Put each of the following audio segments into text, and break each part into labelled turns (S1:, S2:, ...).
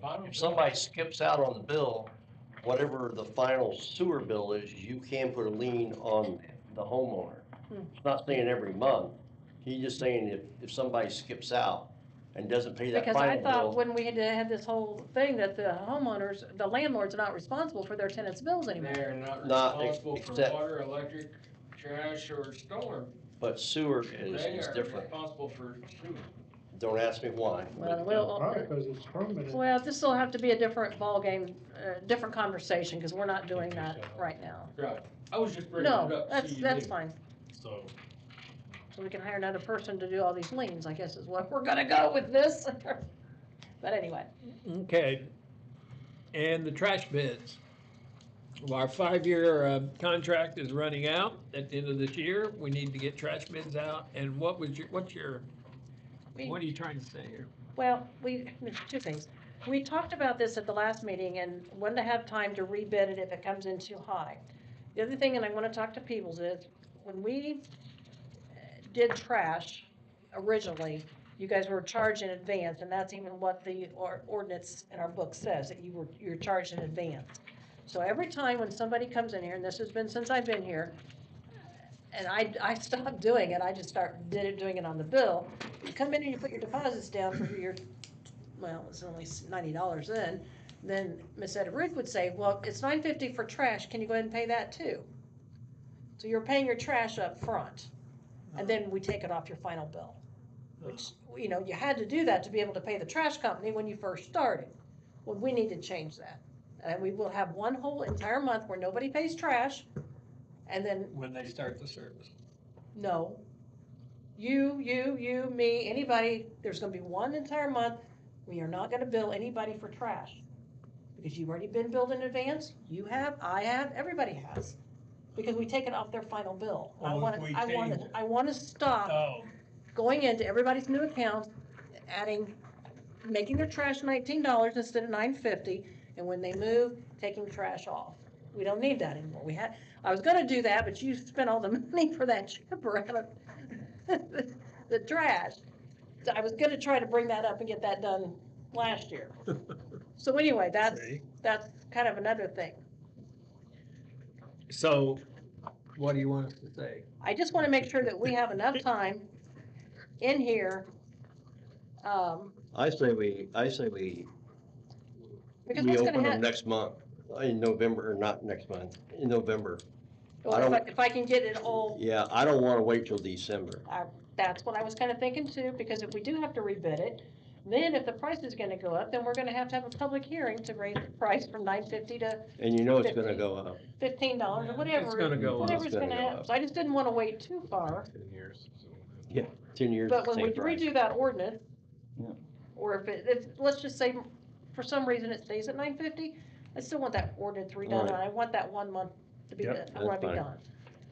S1: bottom.
S2: if somebody skips out on the bill, whatever the final sewer bill is, you can put a lien on the homeowner. It's Not saying every month, he's just saying if, if somebody skips out and doesn't pay that
S3: Because I
S2: final
S3: thought
S2: bill.
S3: when we had to have this whole thing that the homeowners, the landlords are not responsible for their tenants' bills anymore.
S1: They're not
S2: Not ex-
S1: responsible for
S2: except-
S1: water, electric, trash, or storm.
S2: But sewer is,
S1: They
S2: is
S1: are
S2: different,
S1: responsible for sewer.
S2: don't ask me why.
S3: Well,
S4: Right,
S3: we'll,
S4: because it's permanent.
S3: well, this'll have to be a different ballgame, uh, different conversation, cause we're not doing that right now.
S1: Right, I was just bringing it up.
S3: No,
S1: so
S3: that's,
S1: you
S3: that's
S1: knew.
S3: fine.
S5: So,
S3: So we can hire another person to do all these liens, I guess is what we're gonna go with this. But anyway,
S6: Okay, and the trash bids. Well, Our five-year uh, contract is running out at the end of this year. We need to get trash bids out. And what was your, what's your,
S3: we-
S6: what are you trying to say here?
S3: Well, we, two things. We talked about this at the last meeting and wanted to have time to rebid it if it comes in too high. The other thing, and I wanna talk to Peebles, is when we uh, did trash originally, you guys were charged in advance, and that's even what the or- ordinance in our book says, that you were, you're charged in advance. So every time when somebody comes in here, and this has been since I've been here, and I, I stopped doing it, I just start, did it, doing it on the bill. You Come in and you put your deposits down for your well, it's only s- ninety dollars then, then Miss Etta Ruth would say, well, it's nine fifty for trash, can you go ahead and pay that too? So you're paying your trash up front, and then we take it off your final bill. Which, you know, you had to do that to be able to pay the trash company when you first started. Well, we need to change that. And we will have one whole entire month where nobody pays trash, and then
S6: When they start the service.
S3: no. You, you, you, me, anybody, there's gonna be one entire month, we are not gonna bill anybody for trash. Because you've already been billed in advance, you have, I have, everybody has. Because we take it off their final bill. I
S5: Well, if
S3: wanna,
S5: we
S3: I wanna,
S5: change it.
S3: I wanna stop
S5: oh,
S3: going into everybody's new account, adding, making their trash nineteen dollars instead of nine fifty, and when they move, taking trash off. We don't need that anymore. We had, I was gonna do that, but you spent all the money for that chipper out of the- the trash. So I was gonna try to bring that up and get that done last year.
S6: Oh.
S3: So anyway, that's, that's kind of another thing.
S6: So, what do you want us to say?
S3: I just wanna make sure that we have enough time in here. Um,
S2: I say we, I say we,
S3: because what's gonna happen?
S2: next month, in November, or not next month, in November.
S3: Well,
S2: I
S3: if I,
S2: don't-
S3: if I can get it all,
S2: Yeah, I don't wanna wait till December.
S3: that's what I was kinda thinking too, because if we do have to rebid it, then if the price is gonna go up, then we're gonna have to have a public hearing to raise the price from nine fifty to
S2: And you know it's gonna
S3: Fifteen.
S2: go up.
S3: fifteen dollars or whatever.
S6: It's gonna go up.
S3: Whatever's
S2: It's gonna
S3: gonna
S2: go
S3: happen,
S2: up.
S3: so I just didn't wanna wait too far,
S2: Ten years.
S3: but when
S2: same
S3: we
S2: price.
S3: redo that ordinance,
S2: Yeah.
S3: or if it, if, let's just say, for some reason it stays at nine fifty, I still want that ordinance redone,
S2: Alright.
S3: and I want that one month to be,
S5: Yep,
S3: done- I
S2: that's
S3: wanna be
S2: fine.
S3: done.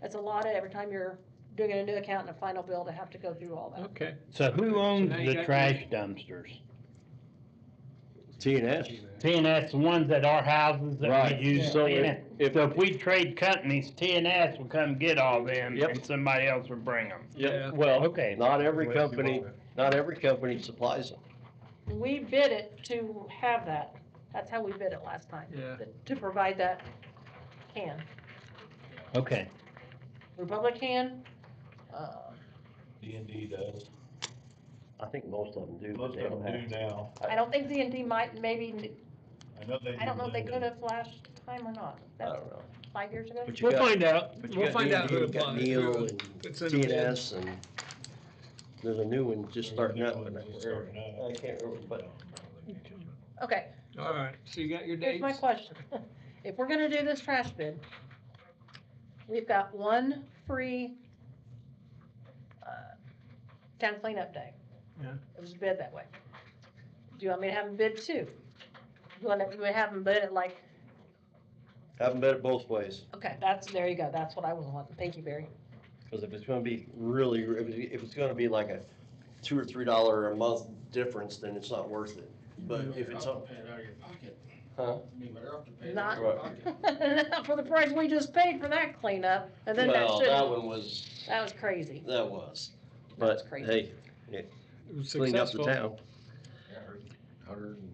S3: That's a lot of, every time you're doing a new account and a final bill to have to go through all that.
S6: Okay,
S7: So who owns
S6: now you got
S7: the
S6: your-
S7: trash dumpsters?
S2: T and S.
S7: T and S, the ones that are houses that
S2: Right.
S7: we use.
S2: So
S7: T&S.
S2: if-
S7: So if we trade companies, T and S will come get all them
S2: Yep.
S7: and somebody else will bring them.
S6: yeah.
S7: Well, okay.
S2: Not every company, not every company supplies them.
S3: We bid it to have that, that's how we bid it last time.
S6: Yeah.
S3: To provide that can,
S7: Okay.
S3: Republic can, uh,
S5: D and D does,
S2: I think most of them do, but
S5: most
S2: they
S5: of
S2: don't
S5: them
S2: have.
S5: do now,
S3: I don't think D and D might, maybe,
S5: I know they.
S3: I don't know if they
S5: do
S3: could
S5: now.
S3: have last time or not,
S2: I
S3: that's
S2: don't know.
S3: five years ago.
S2: But you
S6: We'll
S2: got-
S6: find out,
S2: but you
S6: we'll
S2: got
S6: find out
S2: D&D,
S6: who
S2: you got
S6: applies.
S2: Neil
S6: who-
S2: and
S6: It's in
S2: T and
S6: the-
S2: S and there's a new one just
S5: There's a
S2: starting
S5: new
S2: up.
S5: one
S2: and I-
S5: just starting up.
S2: I can't remember, but
S3: Okay,
S6: All right, so you got your
S3: here's my
S6: dates?
S3: question, if we're gonna do this trash bid, we've got one free, uh, town cleanup day.
S6: Yeah.
S3: It was bid that way. Do you want me to have them bid two? You wanna, you wanna have them bid at like
S2: haven't bet it both ways,
S3: Okay, that's, there you go, that's what I was wanting, thank you, Barry.
S2: cause if it's gonna be really, if it- if it's gonna be like a two or three dollar a month difference, then it's not worth it. But if it's,
S1: You'll
S2: up-
S1: have to Pay it out of your pocket.
S2: Huh?
S1: You better have to pay it out of your
S2: Not-
S1: pocket.
S3: Not for the price we just paid for that cleanup, and then that
S2: well,
S3: should,
S2: that
S3: that
S2: one was,
S3: was crazy.
S2: that was.
S3: That's
S2: But
S3: crazy.
S2: hey,
S6: It was
S2: cleaned up the
S6: successful.
S2: town.
S1: Yeah, Hundred and